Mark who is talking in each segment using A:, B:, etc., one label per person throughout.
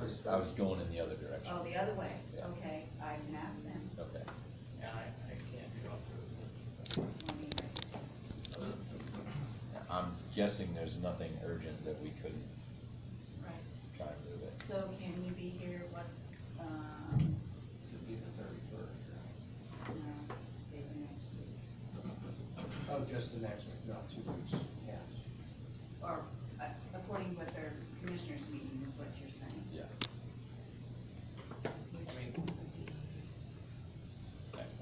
A: was, I was going in the other direction.
B: Oh, the other way,
A: Yeah.
B: okay, I can ask them.
A: Okay.
C: Yeah, I, I can't go through this.
B: Let me write this down.
A: I'm guessing there's nothing urgent that we couldn't
B: Right,
A: try and move it.
B: so can you be here, what, um,
C: It'd be the thirty-first,
B: no, maybe next week?
D: Oh, just the next week, not two weeks, yeah.
B: Or, uh, according with their commissioners meeting is what you're saying?
A: Yeah.
C: I mean,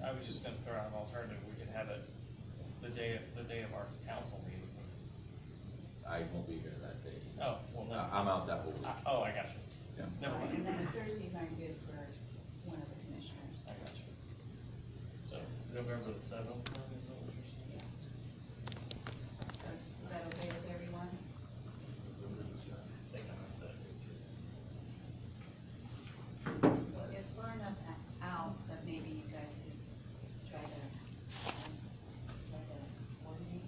C: I was just gonna throw out an alternative, we could have it the day, the day of our council meeting.
A: I won't be here that day.
C: Oh, well,
A: I-
C: no,
A: I'm out that whole week.
C: I- oh, I got you.
A: Ah. Yeah.
C: Never mind,
B: And then Thursdays aren't good for one of the commissioners.
C: I got you. So, November the seventh, then, is that what you're saying?
B: Is that okay with everyone?
C: I think I'm at the-
B: It's far enough a- out that maybe you guys could try to, um, try to coordinate.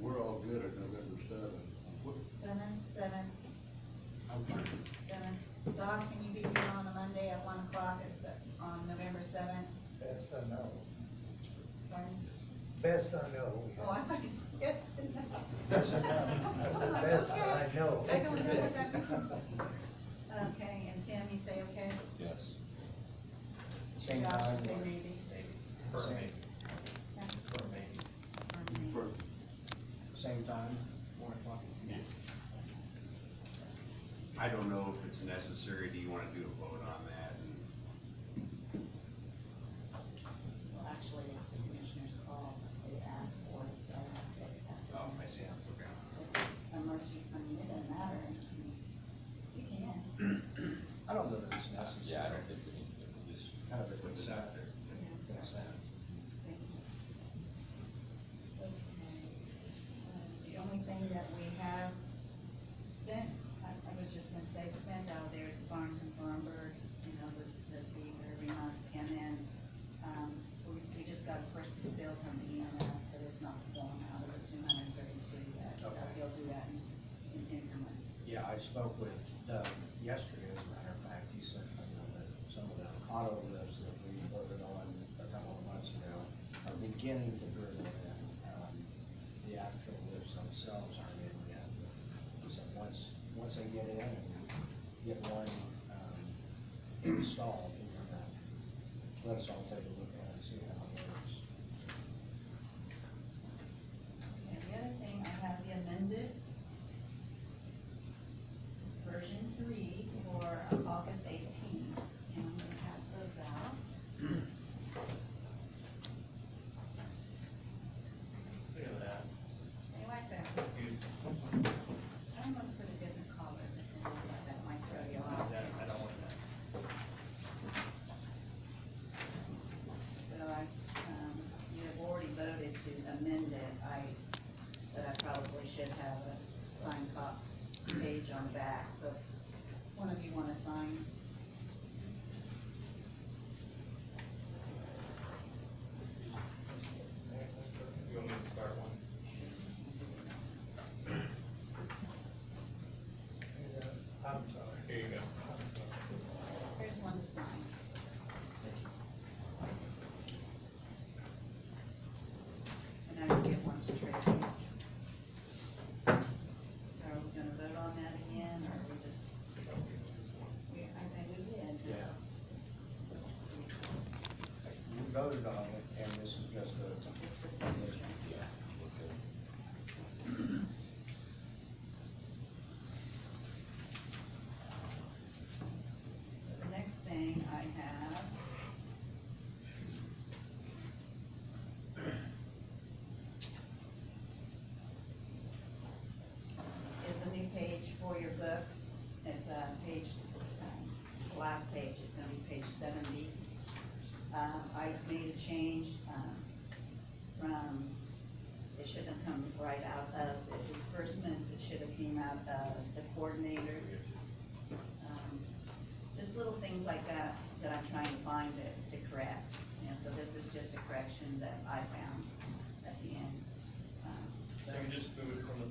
E: We're all good at November seventh.
B: Seven, seven, seven. Doc, can you be here on a Monday at one o'clock at se- on November seventh?
F: Best I know,
B: Pardon?
F: best I know.
B: Oh, I thought you said yes. and no.
F: Best I know,
B: Oh,
F: I said best I know.
B: I don't know what that means. Okay, and Tim, you say okay?
A: Yes.
F: Same
B: Doc, you
F: time.
B: Say maybe.
C: maybe, for me,
B: Yeah,
C: for me.
B: or maybe.
E: For,
F: Same time, one o'clock.
G: I don't know if it's necessary, do you wanna do a vote on that? And
B: Well, actually, it's the commissioner's call, they asked for it, so I have to take that.
G: Oh, I see, okay.
B: Unless you, I mean, it doesn't matter, I mean, you can.
F: I don't know that it's
A: Uh,
F: necessary.
A: Yeah, I don't think we need to do this.
F: Kind of a good
G: What's
F: side.
G: out there?
F: That's that.
B: Thank you. Okay. Um, The only thing that we have spent, I, I was just gonna say spent out there is the Barnes and Thornburg, you know, the, the fee for every month, and then, um, we, we just got a person bill from EMS, but it's not going out of the two hundred and thirty-two yet, so
F: Okay.
B: he'll do that in, s- in increments.
F: Yeah, I spoke with Doug yesterday, as a matter of fact, he said, you know, that some of the auto lifts that we voted on a couple of months ago are beginning to burn in. Um, The actual lifts themselves aren't in yet. He said, once, once they get in and get one, um, installed, we're gonna, let us all take a look at it, and see how it works.
B: And the other thing, I have the amended version three for August eighteenth, and I'm gonna pass those out.
C: Look at that,
B: I like that,
C: you,
B: I almost put a different color, but then I thought that might throw you off.
C: that, I don't want that.
B: So I, um, you have already voted to amend it, I, but I probably should have a signed cop page on the back, so if one of you wanna sign?
C: You want me to start one?
F: I'm sorry.
C: Here you go.
B: Here's one to sign. And I can get one to Tracy. So are we gonna vote on that again, or are we just? We, I think we did.
F: Yeah. We voted on it, and this is just a,
B: Just the signature. So the next thing I have. Is a new page for your books, it's a page, um, the last page is gonna be page seventy. Uh, I made a change, um, from, it should have come right out of the disbursements, it should have came out of the coordinator. Um, just little things like that, that I'm trying to find to, to correct, you know, so this is just a correction that I found at the end. Um,
C: So you just move it from the